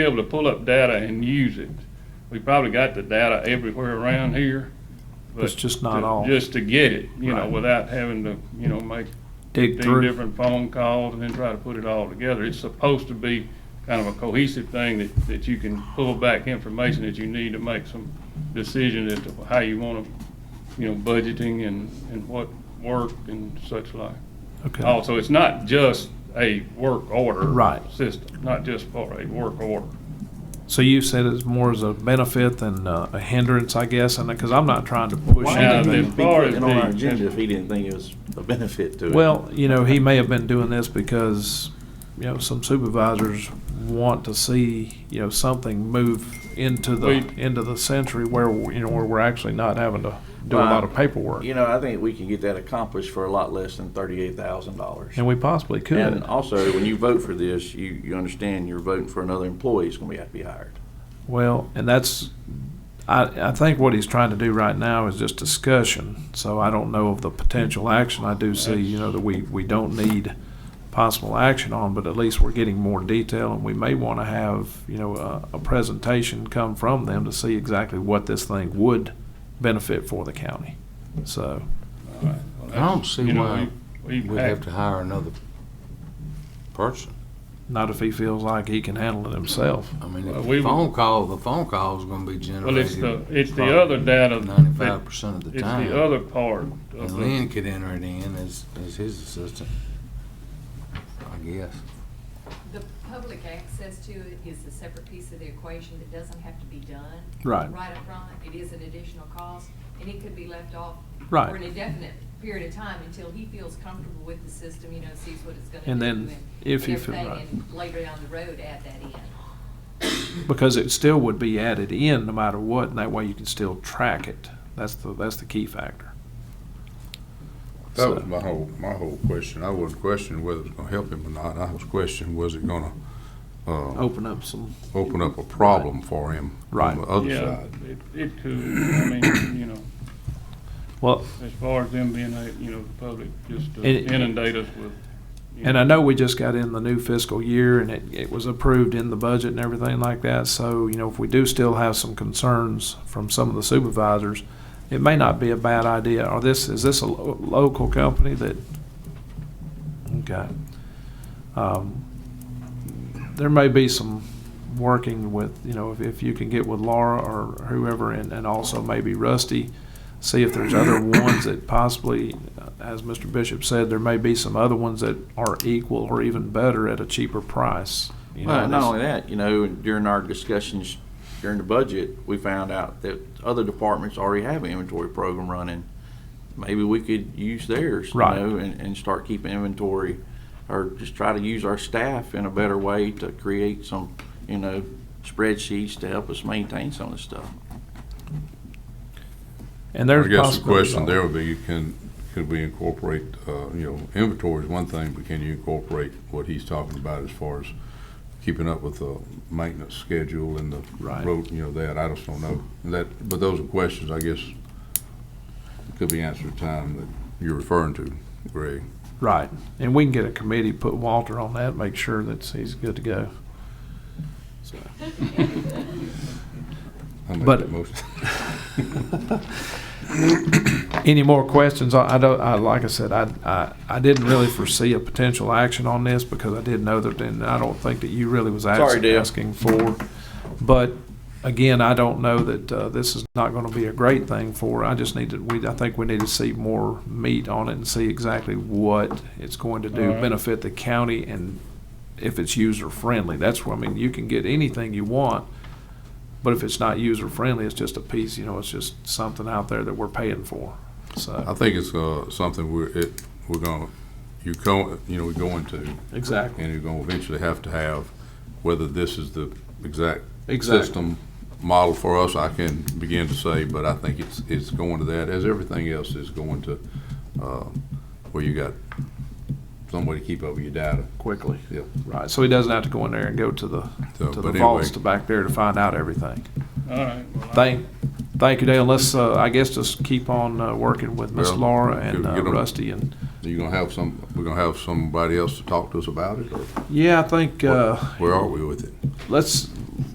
be able to pull up data and use it. We probably got the data everywhere around here. but It's just not to- all. Just to get it, you know, Right. without having to, you know, make dig fifteen through. different phone calls and then try to put it all together. It's supposed to be kind of a cohesive thing that, that you can pull back information that you need to make some decisions as to how you want to, you know, budgeting and, and what work and such like. Okay, Also, it's not just a work order. Right. System, not just for a work order. so you said it's more as a benefit than uh, a hindrance, I guess, and, because I'm not trying to push Why Now, not? anything. as far as the- on our agenda if he didn't think it was a benefit to it. Well, you know, he may have been doing this because, you know, some supervisors want to see, you know, something move into the, We- into the century where, you know, where we're actually not having to do a Well, lot of paperwork. You know, I think we can get that accomplished for a lot less than thirty-eight thousand dollars. And we possibly And could. also, when you vote for this, you, you understand you're voting for another employee who's gonna be, have to be hired. Well, and that's, I, I think what he's trying to do right now is just discussion. So I don't know of the potential action. I do see, you know, that we, we don't need possible action on, but at least we're getting more detail and we may want to have, you know, a, a presentation come from them to see exactly what this thing would benefit for the county. So, I don't see You know, why we- we we'd have act- to hire another person. not if he feels like he can handle it himself. I mean, Well, if we- the phone call, the phone call's gonna be Well, it's generated. the, it's the other data. that- Ninety-five percent of the It's time. the other part of And the, Lynn could enter it in as, as his assistant, I guess. The public access to it is a separate piece of the equation that doesn't have to be done. Right. Right up front, it is an additional cost, and it could be left off. Right. For an indefinite period of time until he feels comfortable with the system, you know, sees what it's gonna do. And then if he and feel- everything, right. And later down the road, add that in. Because it still would be added in no matter what, and that way you can still track it. That's the, that's the key factor. That So- was my whole, my whole question. I wasn't questioning whether it was gonna help him or not. I was questioning, was it gonna, uh, Open up some open up a problem for him Oh. Right. on the other yeah, side? it, it could, I mean, you know, Well, as far as them being, a- you know, the public just to And it- inundate us with. you and I know we just got in the new fiscal year and it, it was approved in the budget and everything like that. So, you know, if we do still have some concerns from some of the supervisors, it may not be a bad idea. Or this, is this a lo- local company that, okay. Um, There may be some working with, you know, if, if you can get with Laura or whoever and, and also maybe Rusty, see if there's other ones that possibly, uh, as Mr. Bishop said, there may be some other ones that are equal or even better at a cheaper price. you know, Well, not this- only that, you know, during our discussions during the budget, we found out that other departments already have an inventory program running. Maybe we could use theirs, you Right. know, and, and start keeping inventory, or just try to use our staff in a better way to create some, you know, spreadsheets to help us maintain some of this stuff. And I there's guess the possibilities question all- there would be, can, could we incorporate, uh, you know, inventory is one thing, but can you incorporate what he's talking about as far as keeping up with the maintenance schedule and the Right. road, you know, that, I just don't know. That, but those are questions, I guess, could be answered time that you're referring to, Greg. Right, and we can get a committee, put Walter on that, make sure that he's good to go. So, I'll make But- that motion. Any more questions? I I don't, I, like I said, I, I, I didn't really foresee a potential action on this because I did know that, and I don't think that you really was Sorry, ask- Dale. asking for. But again, I don't know that, uh, this is not gonna be a great thing for, I just need to, we, I think we need to see more meat on it and see exactly what it's going to do, All right. benefit the county and if it's user friendly. That's where, I mean, you can get anything you want, but if it's not user friendly, it's just a piece, you know, it's just something out there that we're paying for. I So, think it's, uh, something we're, it, we're gonna, you go, you know, we're going to, exactly. and you're gonna eventually have to have, whether this is the exact Exactly. system model for us, I can begin to say, but I think it's, it's going to that, as everything else is going to, uh, where you got some way to keep up with your data. Quickly. Yep. Right, so he doesn't have to go in there and go to the, So, to the but vaults anyway. to back there to find out everything. All right. well, I- Thank, thank you, Dale. Let's, uh, I guess just keep on, uh, working with Miss Well, Laura and get- uh, get 'em- Rusty and, You gonna have some, we're gonna have somebody else to talk to us about it, or yeah, I think, uh, where are we with it? let's,